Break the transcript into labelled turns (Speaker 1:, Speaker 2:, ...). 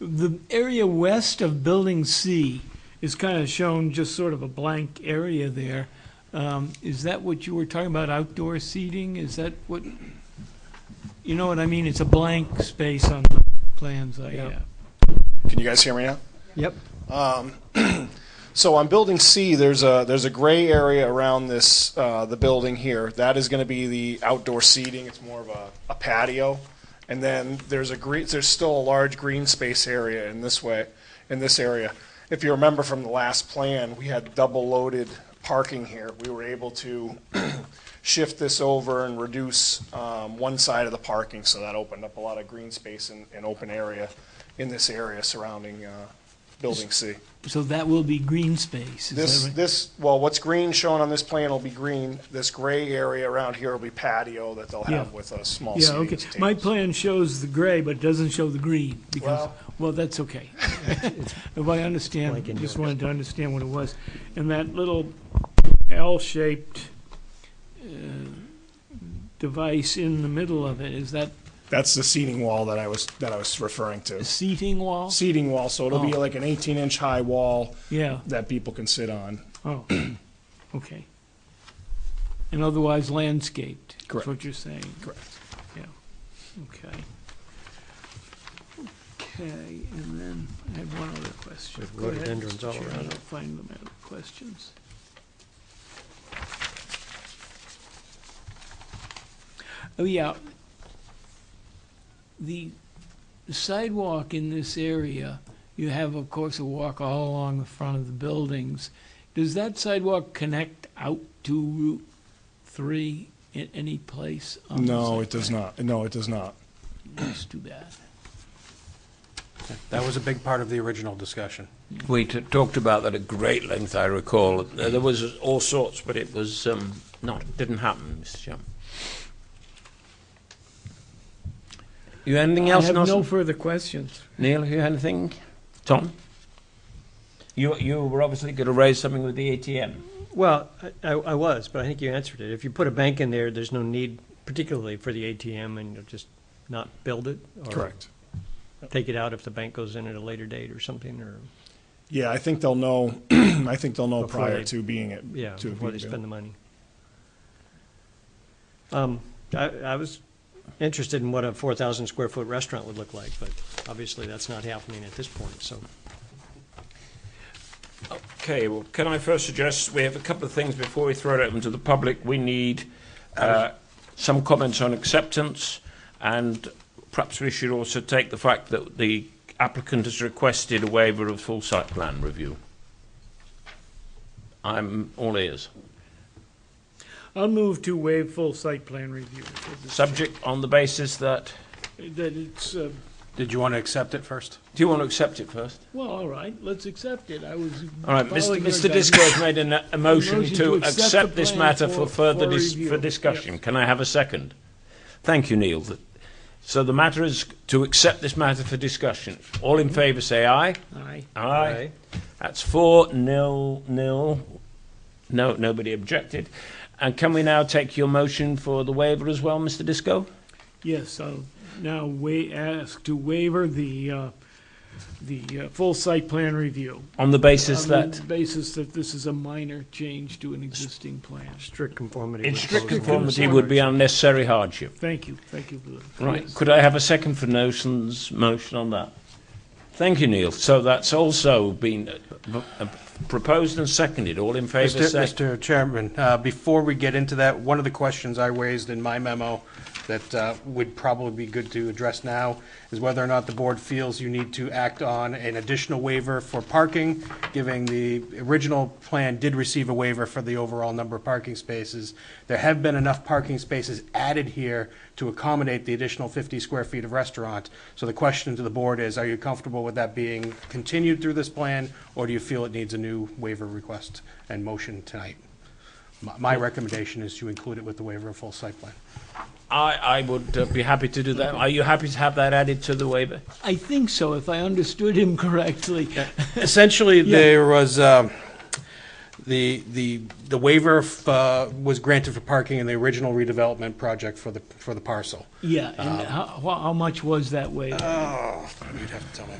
Speaker 1: The area west of Building C is kind of shown just sort of a blank area there. Um, Is that what you were talking about, outdoor seating? Is that what, you know what I mean? It's a blank space on the plans I
Speaker 2: Yeah.
Speaker 1: have.
Speaker 3: Can you guys hear me now?
Speaker 2: Yep.
Speaker 3: So on building C, there's a there's a gray area around this uh, the building here. That is going to be the outdoor seating. It's more of a, a patio, and then there's a green. There's still a large green space area in this way in this area. If you remember from the last plan, we had double loaded parking here. We were able to shift this over and reduce um, one side of the parking, so that opened up a lot of green space and, and open area in this area surrounding uh, building C.
Speaker 1: So that will be green space, is
Speaker 3: This,
Speaker 1: that right?
Speaker 3: this, well, what's green shown on this plan will be green. This gray area around here will be patio that they'll have
Speaker 1: Yeah.
Speaker 3: with a small
Speaker 1: Yeah,
Speaker 3: seating
Speaker 1: okay. My
Speaker 3: table.
Speaker 1: plan shows the gray, but it doesn't show the green, because,
Speaker 3: Well-
Speaker 1: well, that's okay. If I understand,
Speaker 2: Blank in
Speaker 1: just
Speaker 2: yours.
Speaker 1: wanted to understand what it was. And that little L-shaped uh, device in the middle of it, is that
Speaker 3: That's the seating wall that I was, that I was referring
Speaker 1: a
Speaker 3: to.
Speaker 1: seating wall?
Speaker 3: Seating wall, so it'll be
Speaker 1: Oh.
Speaker 3: like an eighteen inch high wall
Speaker 1: Yeah,
Speaker 3: that people can sit on.
Speaker 1: oh, okay. And otherwise landscaped? is
Speaker 3: Correct.
Speaker 1: what you're saying?
Speaker 3: Correct.
Speaker 1: Yeah, okay. Okay, and then I had one other question.
Speaker 2: With
Speaker 1: Go ahead,
Speaker 2: rhododendrons
Speaker 1: Mr.
Speaker 2: all
Speaker 1: Chair,
Speaker 2: around
Speaker 1: I'll
Speaker 2: it.
Speaker 1: Find them out, questions. Oh, yeah. The sidewalk in this area, you have, of course, a walk all along the front of the buildings. Does that sidewalk connect out to Route 3 in any place? on the
Speaker 4: No,
Speaker 1: site
Speaker 4: it does
Speaker 1: plan?
Speaker 4: not. No, it does not.
Speaker 1: That's too bad.
Speaker 5: That was a big part of the original discussion.
Speaker 6: We t- talked about that at great length, I recall. Uh,
Speaker 5: Mm.
Speaker 6: There was all sorts, but it was um, not, it didn't happen, Mr. Chairman. You anything
Speaker 1: I
Speaker 6: else,
Speaker 1: have no
Speaker 6: Nelson?
Speaker 1: further questions.
Speaker 6: Neil, you anything? Tom? You, you were obviously going to raise something with the ATM.
Speaker 2: Well, I, I I was, but I think you answered it. If you put a bank in there, there's no need particularly for the ATM and you'll just not build it? or
Speaker 3: Correct.
Speaker 2: Take it out if the bank goes in at a later date or something, or,
Speaker 4: Yeah, I think they'll know, I think they'll know
Speaker 2: Before
Speaker 4: prior
Speaker 2: they-
Speaker 4: to being it.
Speaker 2: yeah,
Speaker 4: to it
Speaker 2: before they
Speaker 4: being built.
Speaker 2: spend the money. Um, I, I was interested in what a four thousand square foot restaurant would look like, but obviously that's not happening at this point, so.
Speaker 6: Okay, well, can I first suggest we have a couple of things before we throw it open to the public? We need uh, some comments on acceptance, and perhaps we should also take the fact that the applicant has requested a waiver of full site plan review. I'm all ears.
Speaker 1: I'll move to waive full site plan review.
Speaker 6: Subject on the basis that.
Speaker 1: That it's, uh,
Speaker 5: Did you want to accept it first?
Speaker 6: Do you want to accept it first?
Speaker 1: well, all right, let's accept it. I was.
Speaker 6: All right, Mr.
Speaker 1: following your
Speaker 6: Mr.
Speaker 1: guidance.
Speaker 6: Disco has made an, a motion
Speaker 1: motion
Speaker 6: to
Speaker 1: to accept the
Speaker 6: accept this
Speaker 1: plan
Speaker 6: matter
Speaker 1: for-
Speaker 6: for further
Speaker 1: for
Speaker 6: dis-
Speaker 1: review.
Speaker 6: for discussion. Can I have a second? Thank you, Neil. Th- So the matter is to accept this matter for discussion. All in favour, say aye.
Speaker 1: Aye.
Speaker 6: Aye. That's four, nil, nil. No, nobody objected. And can we now take your motion for the waiver as well, Mr. Disco?
Speaker 1: Yes, I'll now wa- ask to waiver the, uh, the uh, full site plan review.
Speaker 6: On the basis
Speaker 1: on
Speaker 6: that,
Speaker 1: the Basis that this is a minor change to an existing plan.
Speaker 2: Strict conformity.
Speaker 6: in
Speaker 2: with
Speaker 6: strict
Speaker 2: proposed
Speaker 6: conformity,
Speaker 2: ordinance.
Speaker 6: would be unnecessary hardship.
Speaker 1: Thank you, thank you. for that.
Speaker 6: Right,
Speaker 1: Yes.
Speaker 6: could I have a second for Nelson's motion on that? Thank you, Neil. So that's also been uh, b- uh, proposed and seconded. All in favour,
Speaker 5: Mr.
Speaker 6: say...
Speaker 5: Mr. Chairman, uh, before we get into that, one of the questions I raised in my memo that uh, would probably be good to address now is whether or not the board feels you need to act on an additional waiver for parking, giving the original plan did receive a waiver for the overall number of parking spaces. There have been enough parking spaces added here to accommodate the additional 50 square feet of restaurant. So the question to the board is, are you comfortable with that being continued through this plan, or do you feel it needs a new waiver request and motion tonight? My- My recommendation is to include it with the waiver of full site plan.
Speaker 6: I, I would uh, be happy to do that. Are you happy to have that added to the waiver?
Speaker 1: I think so, if I understood him correctly.
Speaker 5: Essentially, there was, um, the, the, the waiver uh, was granted for parking in the original redevelopment project for the, for the parcel.
Speaker 6: Uh,
Speaker 1: Yeah, and how, how much was that waiver?
Speaker 5: Oh, you'd have to tell me.